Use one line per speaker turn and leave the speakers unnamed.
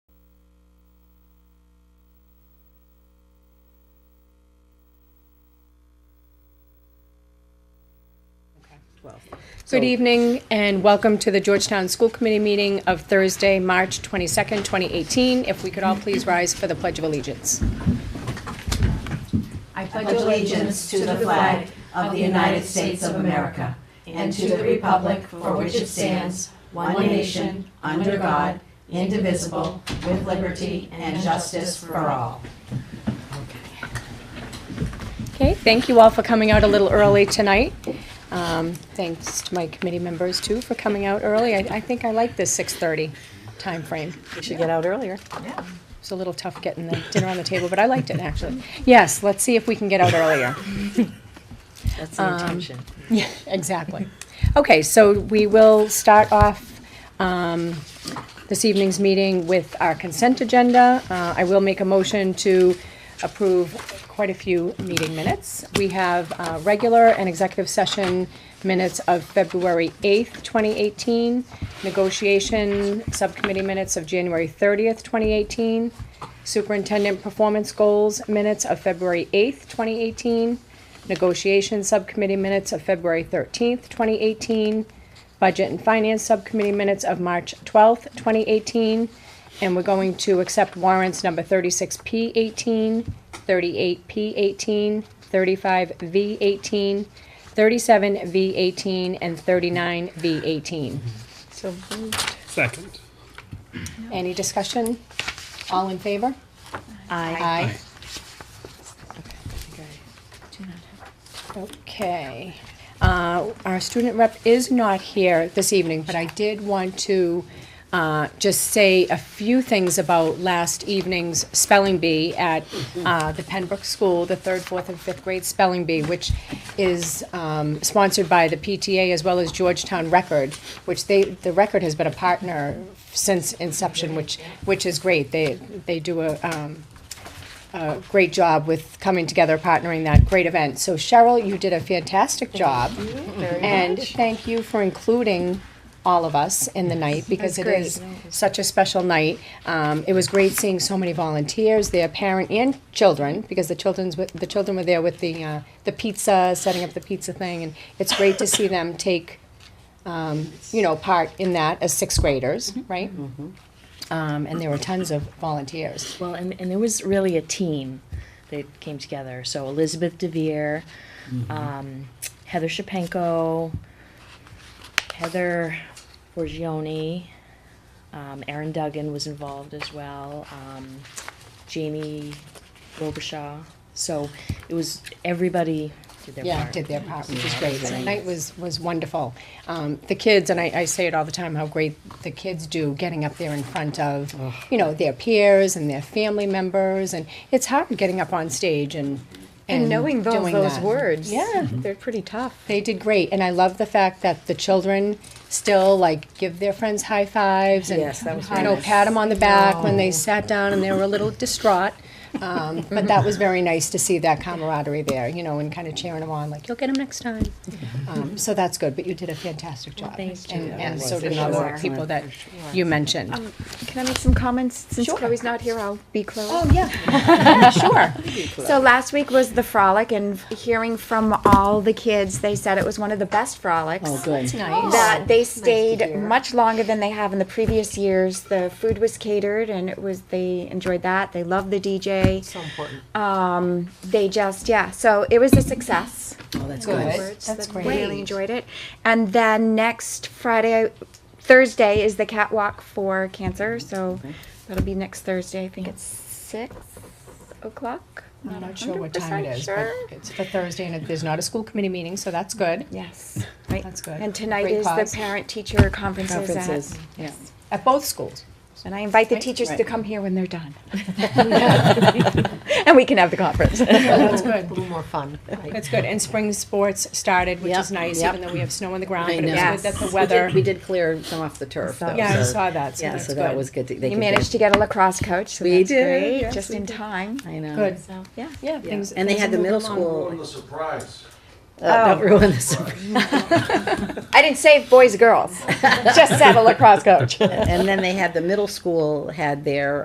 Good evening and welcome to the Georgetown School Committee meeting of Thursday, March 22nd, 2018. If we could all please rise for the Pledge of Allegiance.
I pledge allegiance to the flag of the United States of America and to the republic for which it stands, one nation, under God, indivisible, with liberty and justice for all.
Okay, thank you all for coming out a little early tonight. Um, Thanks to my committee members too for coming out early. I I think I like this 6:30 timeframe. We should get out earlier.
Yeah.
It's a little tough getting the dinner on the table, but I liked it actually. Yes, let's see if we can get out earlier.
That's the intention.
Um,
Yeah, exactly. Okay, so we will start off um, this evening's meeting with our consent agenda. Uh, I will make a motion to approve quite a few meeting minutes. We have uh, regular and executive session minutes of February 8th, 2018, negotiation subcommittee minutes of January 30th, 2018, superintendent performance goals minutes of February 8th, 2018, Negotiation Subcommittee minutes of February 13th, 2018, Budget and Finance Subcommittee minutes of March 12th, 2018, and we're going to accept warrants number 36P18, 38P18, 35V18, 37V18, and 39V18. So,
Second.
any discussion? All in favor? Aye. Okay. Uh, Our student rep is not here this evening, but I did want to uh, just say a few things about last evening's spelling bee at uh, the Pembroke School, the third, fourth, and fifth grade spelling bee, which is um, sponsored by the PTA as well as Georgetown Record, which they, the Record has been a partner since inception, which, which is great. They, they do a, um, a great job with coming together, partnering that great event. So Cheryl, you did a fantastic job. And thank you for including all of us in the night because it is such a special night. Um, it was great seeing so many volunteers, their parent and children, because the children's, with- the children were there with the, uh, the pizza, setting up the pizza thing. And it's great to see them take, um, you know, part in that as sixth graders, right? Um, and there were tons of volunteers.
Well, and, and there was really a team that came together. So Elizabeth Devere, um, Heather Shapenko, Heather Borgioni, um, Aaron Duggan was involved as well, um, Jamie Robershaw. So it was everybody did their
Yeah,
part.
did their part, which is great. The night was, was wonderful. Um, the kids, and I, I say it all the time, how great the kids do getting up there in front of, you know, their peers and their family members, and it's hard getting up on stage and, and
And knowing those,
Mm. doing
those
that.
words.
Yeah.
They're pretty tough.
They did great, and I love the fact that the children still like give their friends high fives and
Yes, that was
you know pat them on the back when they sat down and they were a little distraught. Um, but that was very nice to see that camaraderie there, you know, and kind of cheering them on, like you'll get them next time. Um, so that's good. But you did a fantastic job,
thank you.
and, and
Yeah,
so
for
did all
sure.
the people that you mentioned.
Can I make some comments? Since
Sure.
Chloe's not here, I'll be Chloe.
oh yeah, sure.
So last week was the frolic, and hearing from all the kids, they said it was one of the best frolics.
Oh, That's nice.
That they stayed much longer than they have in the previous years. The food was catered, and it was they enjoyed that. They loved the DJ. So important. Um, they just yeah. So it was a success.
Oh, that's good.
afterwards
That's
that
great.
Really enjoyed it. And then next Friday, Thursday is the catwalk for cancer,
Mm-hmm.
so that'll be next Thursday. I think it's six o'clock.
I'm not sure what time it is, but it's for Thursday, and it- there's not a school committee meeting, so that's good.
Yes. Right.
That's good.
And tonight
Great
is
cause.
the parent teacher conferences, at-
Conferences, yeah.
At both schools.
and I invite the teachers to come here when they're done. and we can have the conference.
That's good.
little more fun.
That's good. And spring sports started, which is
Yep,
nice,
yep.
even though we have snow on the ground,
I
but it was
know.
good that the
Yes.
weather.
We did clear some off the turf, though.
Yeah, I
so-
saw that, so
Yeah,
that's
so that
good.
was good.
You managed to get a lacrosse coach, so
We
that's
did,
great.
yes,
Just
we
in
did.
time.
I know.
Good.
So,
Yeah.
Yeah.
Yeah.
things-
And they
things
had the
are
middle
moving
school.
Ruin the surprise.
Uh, Don't
Oh.
ruin this. surprise.
I didn't say boys, girls. Just said a lacrosse coach.
And then they had the middle school had their